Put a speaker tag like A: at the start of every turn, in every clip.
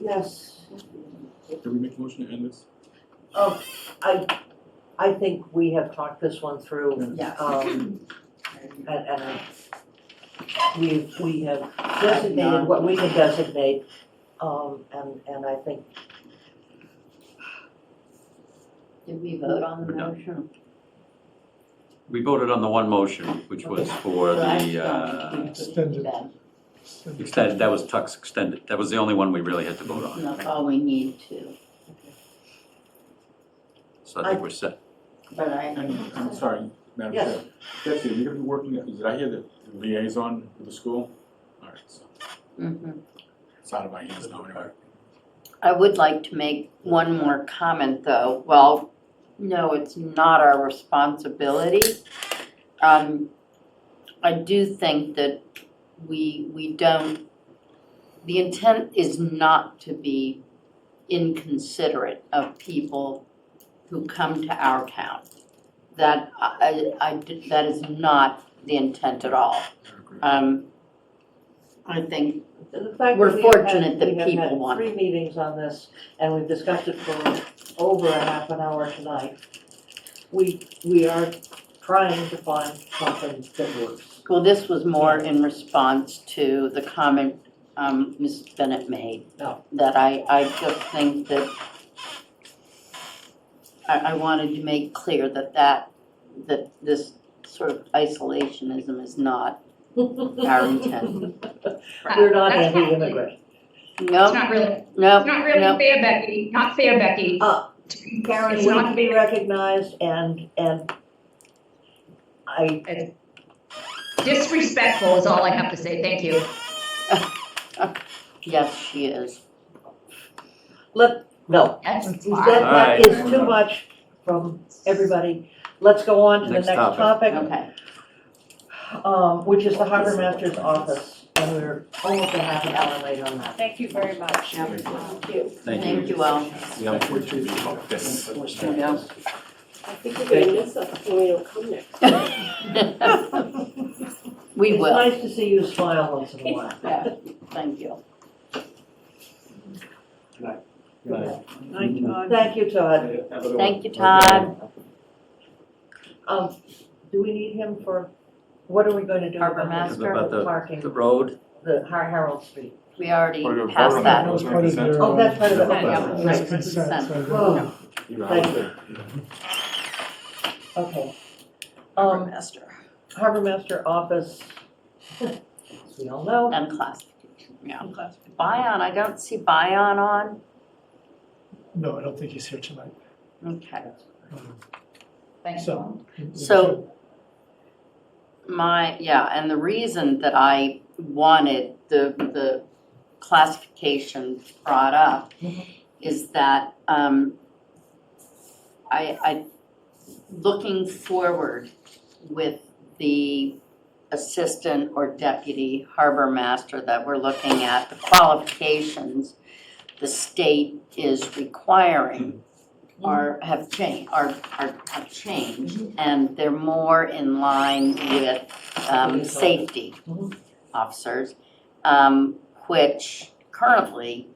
A: Yes,
B: Can we make a motion to end this?
A: oh, I, I think we have talked this one through,
C: Yes.
A: um, and, and I- we, we have designated what we can designate, um, and, and I think,
C: Did we vote on the
D: We're done.
C: motion?
D: We voted on the one motion, which was for
C: Well, I
D: the,
C: don't think we
D: uh,
C: did
E: Extended.
C: that.
D: extended, that was Tuck's extended, that was the only one we really had to vote on.
C: That's all we need to,
D: So I think we're set.
C: but I,
B: And, I'm sorry, Madam Chair.
A: Yes.
B: Betsy, are you gonna be working, did I hear the liaison with the school? All right, so,
C: mhm.
B: it's out of my hands now anyway.
C: I would like to make one more comment, though. Well, no, it's not our responsibility. Um, I do think that we, we don't, the intent is not to be inconsiderate of people who come to our town. That, I, I- I did- that is not the intent at all.
B: I agree.
C: Um, I think,
A: the fact that
C: We're
A: we have had-
C: fortunate that
A: we have
C: people
A: had
C: want
A: three meetings on this, and we've discussed it for over a half an hour tonight. We, we are trying to find something that works.
C: well, this was more in response to the comment um, Mrs. Bennett made.
A: Oh.
C: That I, I just think that I, I wanted to make clear that that, that this sort of isolationism is not our intent.
A: We're not
F: That's
A: anti-immigrant.
F: It's
C: No,
F: not really, it's
C: no,
F: not really
C: no.
F: fair, Becky, not fair, Becky.
A: Uh,
F: To be fair, it's
A: We
F: not
A: want to be
F: fair.
A: recognized and, and I,
F: Disrespectful is all I have to say, thank you.
C: yes, she is.
A: let, no,
F: That's
A: That,
F: fine.
A: that
D: Alright.
A: is too much from everybody. Let's go on to the
D: Next
A: next
D: topic.
A: topic,
C: Okay,
A: um, which is the harbor master's office. And we're almost a half an hour late on that.
G: Thank you very much. Thank you.
D: Thank you.
C: thank you all.
D: The unfortunate about this.
C: No.
G: I think we're gonna miss us when we don't come next.
C: We will,
A: It's nice to see you smile once in a while.
C: yeah, thank you.
G: Night, Todd.
A: Thank you, Todd.
C: Thank you, Todd.
A: Um, do we need him for, what are we going to do
C: Harbor
A: about this?
C: master?
D: About the-
A: Parking,
D: The road,
A: the Har- Harold Street.
C: We already
B: Wanna do a vote
C: passed
B: on
C: that.
E: That was part of their.
A: Oh, that's part of the,
C: Yeah.
A: okay,
E: That's
A: right.
E: consent, so that-
A: Oh,
B: You're out.
A: thank you. Okay. Um,
G: Master.
A: Harbor Master Office, as we all know,
C: And classification, yeah. Bion, I don't see Bion on.
E: No, I don't think he's here tonight.
C: Okay.
E: Um,
F: Thanks,
E: So-
F: Paul.
C: So- My, yeah, and the reason that I wanted the, the classification brought up
A: Mhm.
C: is that, um, I, I, looking forward with the assistant or deputy harbor master that we're looking at, the qualifications the state is requiring are, have changed, are, are, have changed, and they're more in line with, um,
A: Police officer.
C: safety
A: Mhm.
C: officers, um, which currently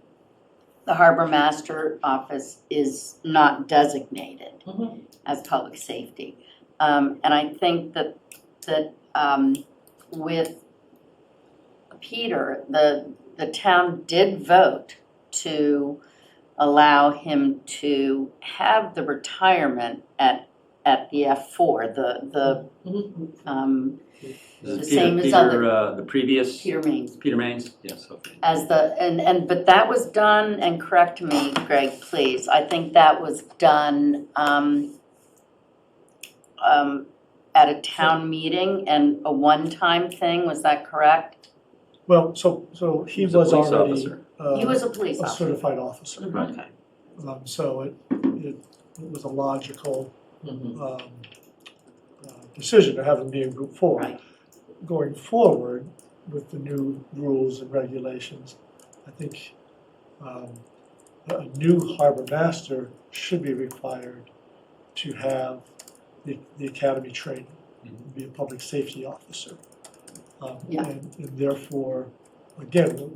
C: the harbor master office is not designated
A: Mhm.
C: as public safety. Um, and I think that, that, um, with Peter, the, the town did vote to allow him to have the retirement at, at the F four, the,
A: Mhm.
C: the, um,
D: this
C: The
D: is
C: same
D: Peter,
C: as
D: Peter,
C: other-
D: uh, the previous,
C: Peter Main
D: Peter Maines, yes, okay.
C: as the, and, and, but that was done, and correct me, Greg, please, I think that was done, um, um, at a town meeting and a one-time thing, was that correct?
E: Well, so, so he
D: He's a
E: was
D: police
E: already
D: officer.
E: uh,
C: He was a police
E: a
C: officer.
E: certified officer.
C: Mhm.
D: Right.
E: Um, So it, it it was a logical
A: Mhm.
E: um, uh, decision to have him be in group four.
C: Right.
E: Going forward with the new rules and regulations, I think um, a a new harbor master should be required to have the, the academy training, be a public safety officer. Um,
C: Yeah.
E: And and therefore, again,